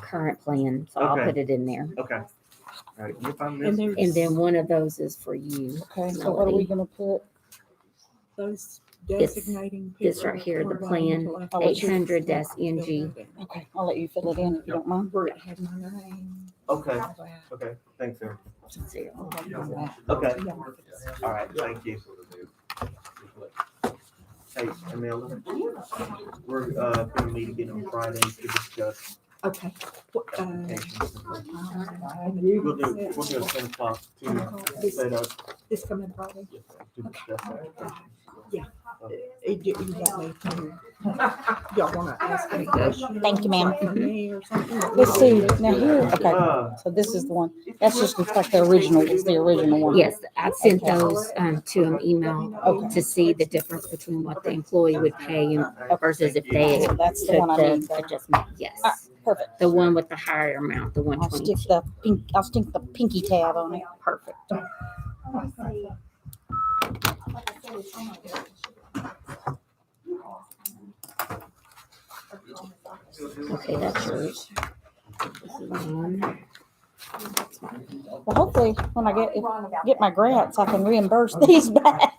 current plan, so I'll Okay. put it in there. Okay. All right, if I And miss, there's And then one of those is for you. Okay, so what are we gonna put? those this- designating. this people right here, the for plan, environmental eight hundred activities. dash NG. Okay, I'll let you fill it in if you don't mind. Where it had my name. okay, Wow. okay, thanks, sir. Zero. Okay, Yeah. all right, thank you. Hey, Amelia, we're, uh, gonna meet again on Friday to discuss Okay. What, uh, applications. you We'll do, we'll do a ten o'clock to set up. This coming Friday? to discuss that. It- You you want me to- y'all wanna ask any questions? Thank you, ma'am. Mm-hmm. Like me or something? Let's see, now here, okay, Uh, so this is the one, that's just looks like the original, it's the original one. Yes, I sent Okay. those, um, to an email Okay. to see the difference between what the employee would pay and versus if they So that's took the one I need, the adjustment, Ah. yes. perfect. The one with the higher amount, the one I'll twenty. stick the pink, I'll stick the pinky tab on it. Perfect. Okay, that's yours. This is mine. Well, hopefully, when I get, if I get my grants, I can reimburse these back.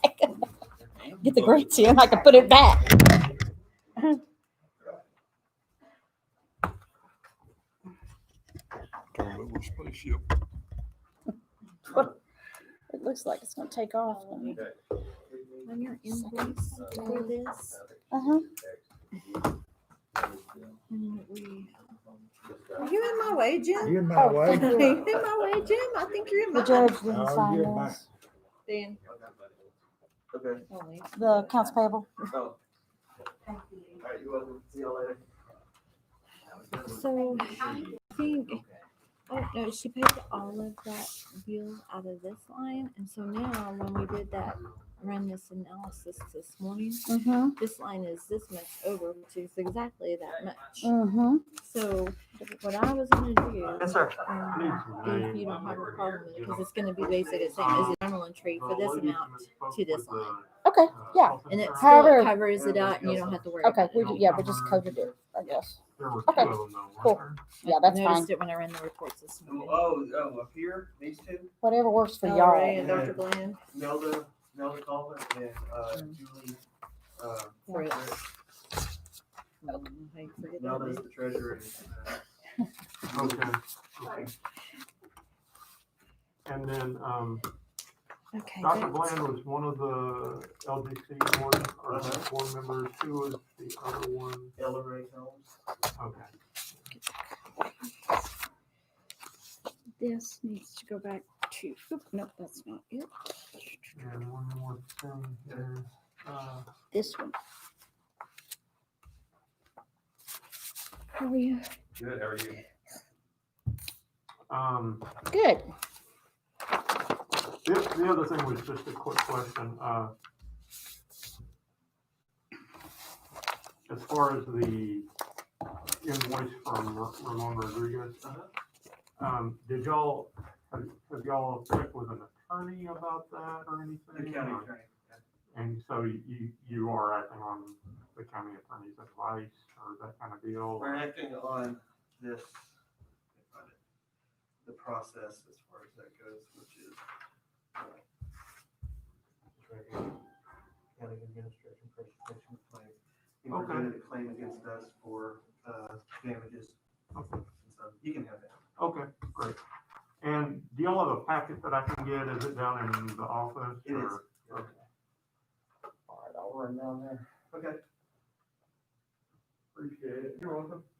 Get the grants in, I can put it back. It looks like it's gonna take off. On your invoice for this, Uh-huh. and that we- Are you in my way, Jim? You're in Oh, Oh, my way. Are you in my way, Jim? I think you're in The my. judge didn't Oh, sign you're in my- this. Dan. Okay. The accounts payable. Oh. All right, you're welcome. See y'all later. So I think, oh no, she paid all of that bill out of this line. And so now when we did that, run this analysis this morning, Mm-hmm. this line is this much over, which is exactly that much. Mm-hmm. So what I was gonna do, Yes, sir. um, if you don't have a problem with it, because it's gonna be basically the same as the normal entry for this amount to this line. Okay, yeah. And it still However- covers it out and you don't have to worry. about Okay, it. we, ju- yeah, we just coded it, I guess. Okay, cool. Yeah, that's fine. Noticed it when I ran the reports this morning. Oh, oh, up here, these two? Whatever works for All y'all. right, and Dr. Bland. Nelda, Nelda Goldman and uh, Julie. Uh, Right. Nelda's the treasurer. and, uh, Okay. okay. And then, um, Okay. Dr. that's- Bland was one of the LDC board, or Uh-huh. board members, who was the other one? uh, Ella Ray Helms. Okay. This needs to go back to, oop, nope, that's not it. And one more thing here, uh, This one. How are you? Good, how are you? um, Good. the, the other thing was just a quick question, uh, as far as the invoice from Ra- Ramon Rodriguez, um, did y'all, have have y'all checked with an attorney about that or The anything? county Or- attorney. And so you, you are acting on the county attorney's advice or that kind of deal? We're acting on this, the process as far as that goes, which is. uh, County Administration Presentation of Claim. He presented a claim against us for uh, damages. Okay. So You can have that. Okay, great. And do y'all have a packet that I can get? Is it down in the office? It is. or- okay. All right, I'll run down there. Okay. Appreciate it. You're welcome.